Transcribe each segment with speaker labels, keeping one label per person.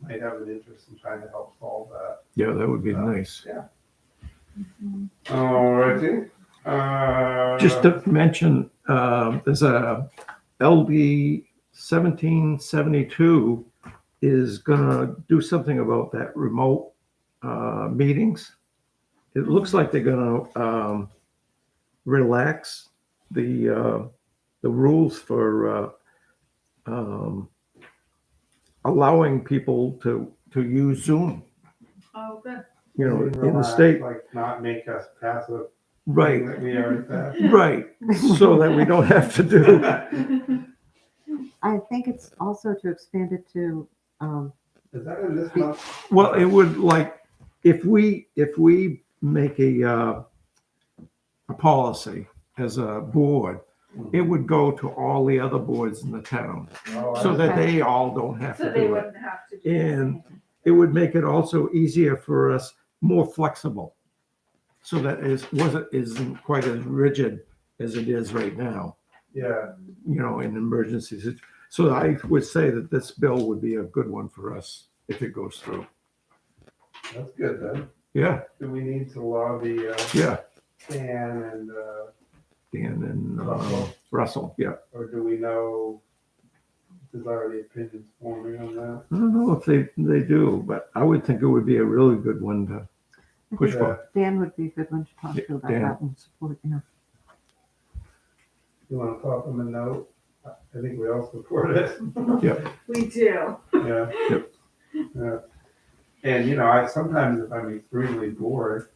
Speaker 1: might have an interest in trying to help solve that.
Speaker 2: Yeah, that would be nice.
Speaker 1: Alrighty. Uh,
Speaker 2: Just to mention, um, there's a LD seventeen seventy-two is gonna do something about that remote uh, meetings. It looks like they're gonna um, relax the uh, the rules for uh, um, allowing people to to use Zoom.
Speaker 3: Oh, good.
Speaker 2: You know, in the
Speaker 1: relax,
Speaker 2: state,
Speaker 1: Like not make us passive.
Speaker 2: right?
Speaker 1: That we are.
Speaker 2: Right, so that we don't have to do,
Speaker 4: I think it's also to expand it to, um,
Speaker 1: Is that in this month?
Speaker 2: well, it would like, if we, if we make a, uh, a policy as a board,
Speaker 1: Hmm.
Speaker 2: it would go to all the other boards in the town,
Speaker 1: Oh, I-
Speaker 2: so that they all don't have
Speaker 3: So
Speaker 2: to
Speaker 3: they
Speaker 2: do it.
Speaker 3: wouldn't have to. do
Speaker 2: And-
Speaker 3: anything.
Speaker 2: It would make it also easier for us, more flexible, so that is, wasn't, isn't quite as rigid as it is right now,
Speaker 1: Yeah,
Speaker 2: you know, in emergencies. So I would say that this bill would be a good one for us if it goes through.
Speaker 1: that's good then.
Speaker 2: Yeah,
Speaker 1: Do we need to lobby, uh,
Speaker 2: yeah,
Speaker 1: Dan and, uh,
Speaker 2: Dan and uh,
Speaker 1: Russell.
Speaker 2: Russell, yeah.
Speaker 1: or do we know? There's already opinions forming on that.
Speaker 2: I don't know if they, they do, but I would think it would be a really good one to
Speaker 4: I
Speaker 2: push
Speaker 4: think
Speaker 1: Yeah.
Speaker 2: for.
Speaker 4: Dan would be a good one to talk to about
Speaker 2: Dan.
Speaker 4: that and support, you know.
Speaker 1: You wanna pop them a note? I I think we all support it.
Speaker 3: We do.
Speaker 1: Yeah. Yeah. And, you know, I, sometimes if I'm extremely bored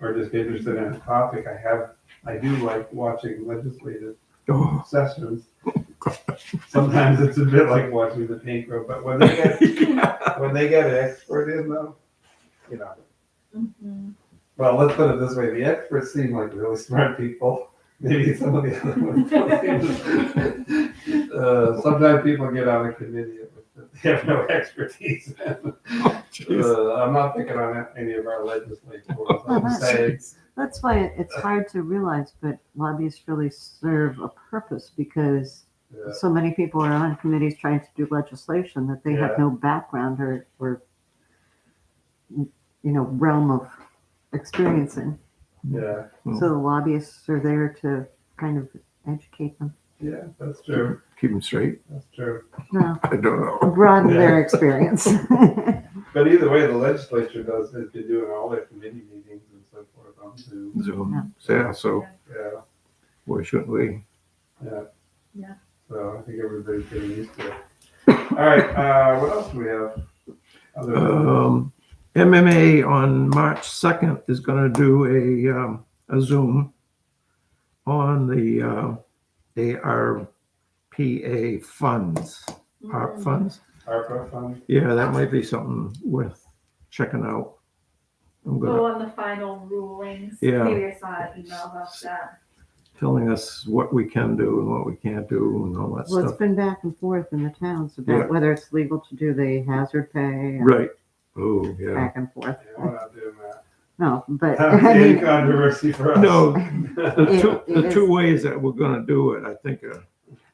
Speaker 1: or just interested in a topic, I have, I do like watching legislative
Speaker 2: Oh,
Speaker 1: sessions. Sometimes it's a bit like watching the paint grow, but when they get, when they get an expert in though, you know,
Speaker 3: Mhm.
Speaker 1: well, let's put it this way, the experts seem like really smart people. Maybe some of the other ones don't seem. Uh, Sometimes people get out of committee if they have no expertise.
Speaker 2: Oh, jeez.
Speaker 1: Uh, I'm not picking on any of our legislators. I'm
Speaker 4: that's-
Speaker 1: saying,
Speaker 4: That's why it- it's hard to realize, but lobbyists really serve a purpose because
Speaker 1: uh,
Speaker 4: so many people are on committees trying to do legislation that they
Speaker 1: Yeah.
Speaker 4: have no background or, or, you know, realm of experiencing.
Speaker 1: Yeah,
Speaker 2: Mm.
Speaker 4: So the lobbyists are there to kind of educate them,
Speaker 1: yeah, that's true,
Speaker 2: Keep them straight.
Speaker 1: that's true.
Speaker 4: no,
Speaker 2: I don't know.
Speaker 4: broaden their
Speaker 1: Yeah.
Speaker 4: experience.
Speaker 1: But either way, the legislature does, has been doing all their committee meetings and so forth on Zoom.
Speaker 2: Zoom. Yeah, so
Speaker 1: Yeah,
Speaker 2: why shouldn't we?
Speaker 1: yeah.
Speaker 3: Yeah.
Speaker 1: So I think everybody's getting used to it. All right, uh, what else do we have? Other than-
Speaker 2: Um, MMA on March 2nd is going to do a, um, a Zoom on the uh, ARPA funds,
Speaker 3: Mm-hmm. Mm.
Speaker 2: ARP funds.
Speaker 1: ARPA fund?
Speaker 2: Yeah, that might be something worth checking out. I'm gonna
Speaker 3: Go on the final rulings.
Speaker 2: Yeah.
Speaker 3: Maybe I saw an email about that.
Speaker 2: telling us what we can do and what we can't do and all that
Speaker 4: Well, it's
Speaker 2: stuff.
Speaker 4: been back and forth in the towns
Speaker 2: Yeah.
Speaker 4: about whether it's legal to do the hazard pay and
Speaker 2: Right. Oh, yeah.
Speaker 4: back and forth.
Speaker 1: Yeah, we're not doing that.
Speaker 4: No, but
Speaker 1: That
Speaker 4: I
Speaker 1: would be a
Speaker 4: mean,
Speaker 1: controversy for us.
Speaker 2: No, the
Speaker 4: It-
Speaker 2: two,
Speaker 4: it
Speaker 2: the
Speaker 4: is-
Speaker 2: two ways that we're gonna do it, I think, uh,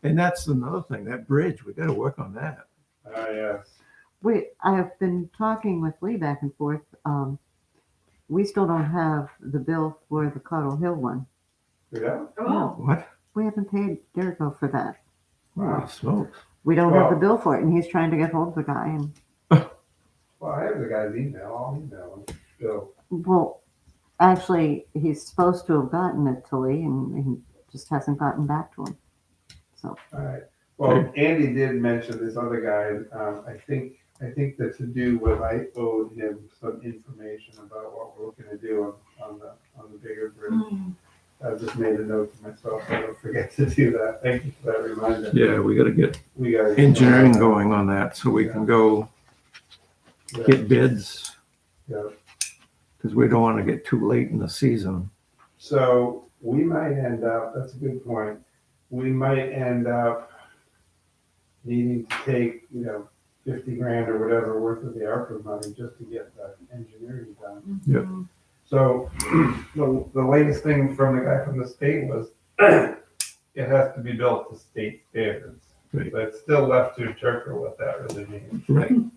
Speaker 2: and that's another thing, that bridge, we gotta work on that.
Speaker 1: Ah, yes.
Speaker 4: we, I have been talking with Lee back and forth. Um, we still don't have the bill for the Cottle Hill one.
Speaker 1: Yeah?
Speaker 3: Oh,
Speaker 2: What?
Speaker 4: We haven't paid Derrico for that.
Speaker 2: Holy smokes.
Speaker 4: We don't have the
Speaker 1: Well-
Speaker 4: bill for it and he's trying to get hold of the guy and,
Speaker 1: Well, I have the guy's email, I'll email him, Bill.
Speaker 4: well, actually, he's supposed to have gotten it to Lee and he just hasn't gotten back to him. So,
Speaker 1: Alright, well, Andy did mention this other guy, um, I think, I think that to do with, I owed him some information about what we're looking to do on, on the, on the bigger bridge.
Speaker 3: Mm.
Speaker 1: I've just made a note to myself, I don't forget to do that, thank you for that reminder.
Speaker 2: Yeah, we gotta get
Speaker 1: We got.
Speaker 2: engineering going on that so we can go
Speaker 1: Yeah,
Speaker 2: get bids,
Speaker 1: yeah.
Speaker 2: because we don't wanna get too late in the season.
Speaker 1: So we might end up, that's a good point, we might end up needing to take, you know, fifty grand or whatever worth of the ARPA money just to get the engineering done.
Speaker 2: Yeah.
Speaker 3: Mhm.
Speaker 1: So the, the latest thing from the guy from the state was it has to be built to state standards.
Speaker 2: Right.
Speaker 1: But it's still left to Turker what that really means.
Speaker 2: Right.